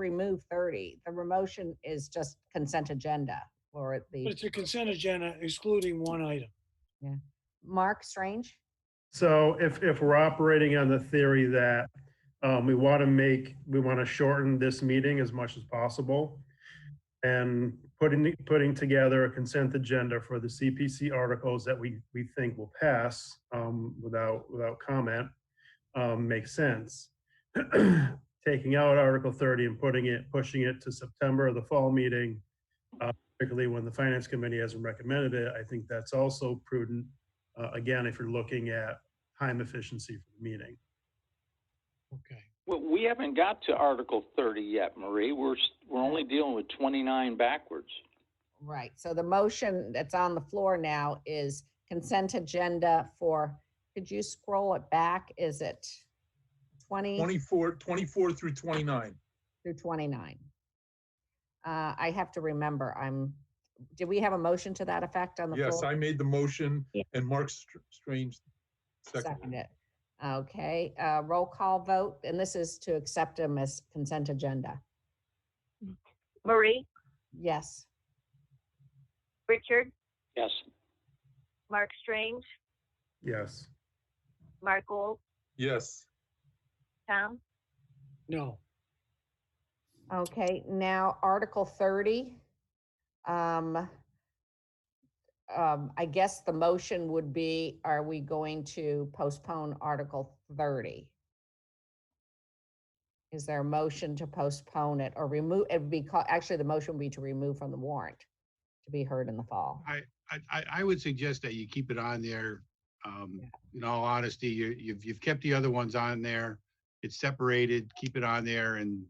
remove thirty. The motion is just consent agenda for But the it's a consent agenda excluding one item. Mark Strange. So if, if we're operating on the theory that um, we want to make, we want to shorten this meeting as much as possible and putting, putting together a consent agenda for the CPC articles that we, we think will pass um, without, without comment um, makes sense. Taking out Article 30 and putting it, pushing it to September, the fall meeting, uh, particularly when the Finance Committee hasn't recommended it, I think that's also prudent uh, again, if you're looking at time efficiency for the meeting. Okay. Well, we haven't got to Article thirty yet, Marie. We're, s- we're only dealing with twenty-nine backwards. Right, so the motion that's on the floor now is consent agenda for, could you scroll it back? Is it twenty 24, 24 through 29. through twenty-nine? Uh, I have to remember, I'm, did we have a motion to that effect on the floor? Yes, I made the motion Yeah. and Mark Str- Strange Second seconded. it. Okay, uh, roll call vote, and this is to accept them as consent agenda. Marie, Yes, Richard, Yes. Mark Strange, Yes. Mark Gold, Yes, Tom, No, okay, now Article thirty. Um, um, I guess the motion would be, are we going to postpone Article thirty? Is there a motion to postpone it or remove, it'd be, ca- actually, the motion would be to remove from the warrant to be heard in the fall. I, I, I would suggest that you keep it on there. Um, Yeah. in all honesty, you, you've, you've kept the other ones on there. It's separated, keep it on there and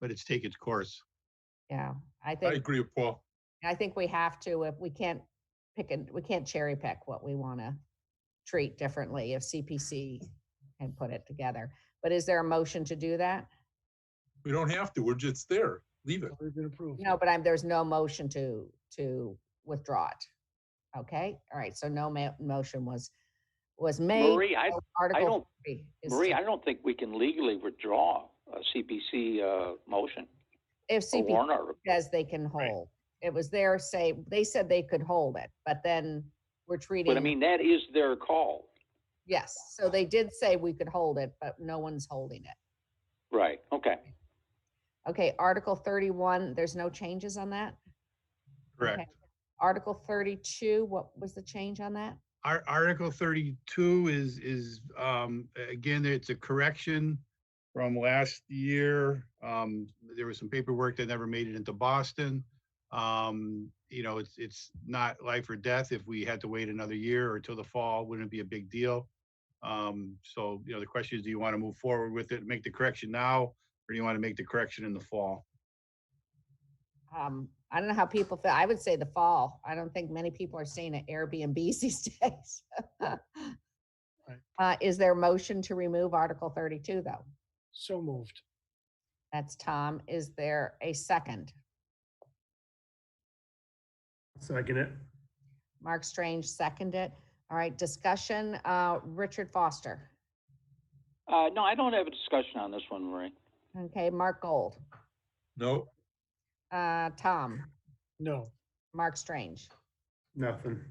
let it take its course. Yeah, I I think. agree with Paul. I think we have to, if we can't pick and, we can't cherry pick what we want to treat differently if CPC can put it together. But is there a motion to do that? We don't have to, we're just there. Leave it. it's already been approved. No, but I'm, there's no motion to, to withdraw it. Okay, all right, so no ma- motion was, was made. Marie, I, so I Article don't, three is Marie, to- I don't think we can legally withdraw a CPC, uh, motion, If a CPC warrant article. says they can hold, it was their say, they said they could hold it, but then we're treating. But I mean, that is their call. Yes, so they did say we could hold it, but no one's holding it. Right, okay. Okay, Article thirty-one, there's no changes on that? Correct. Okay. Article thirty-two, what was the change on that? Our Article thirty-two is, is, um, a- again, it's a correction from last year. Um, there was some paperwork that never made it into Boston. Um, you know, it's, it's not life or death. If we had to wait another year or till the fall, wouldn't it be a big deal. Um, so, you know, the question is, do you want to move forward with it, make the correction now, or do you want to make the correction in the fall? Um, I don't know how people feel, I would say the fall. I don't think many people are staying at Airbnbs these days. Uh, is there a motion to remove Article thirty-two, though? So moved. That's Tom. Is there a second? Second it. Mark Strange seconded. All right, discussion, uh, Richard Foster. Uh, no, I don't have a discussion on this one, Marie. Okay, Mark Gold. No, Uh, Tom, No, Mark Strange. Nothing.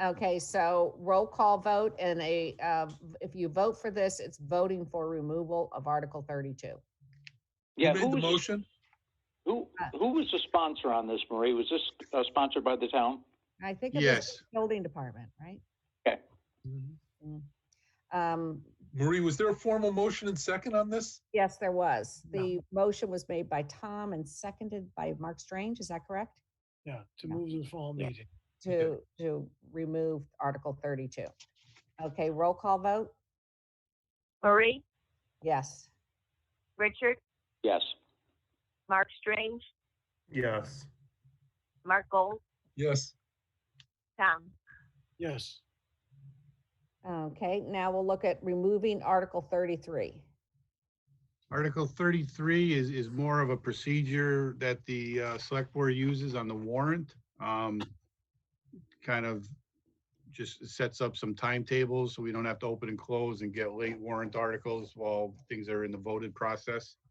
Okay, so roll call vote and a, uh, if you vote for this, it's voting for removal of Article thirty-two. Yeah, who who made the was- motion? Who, Uh, who was the sponsor on this, Marie? Was this uh, sponsored by the town? I think it was the Yes, building department, right? Mm-hmm. Um, Marie, was there a formal motion and second on this? yes, there was. No. The motion was made by Tom and seconded by Mark Strange, is that correct? yeah, to Yeah. move the fall Yeah. meeting. To, to remove Article thirty-two. Okay, roll call vote? Marie, Yes. Richard, Yes. Mark Strange, Yes. Mark Gold, Yes, Tom, Yes, Okay, now we'll look at removing Article thirty-three. Article thirty-three is, is more of a procedure that the uh, select board uses on the warrant. Um, Kind of just sets up some timetables so we don't have to open and close and get late warrant articles while things are in the voted process.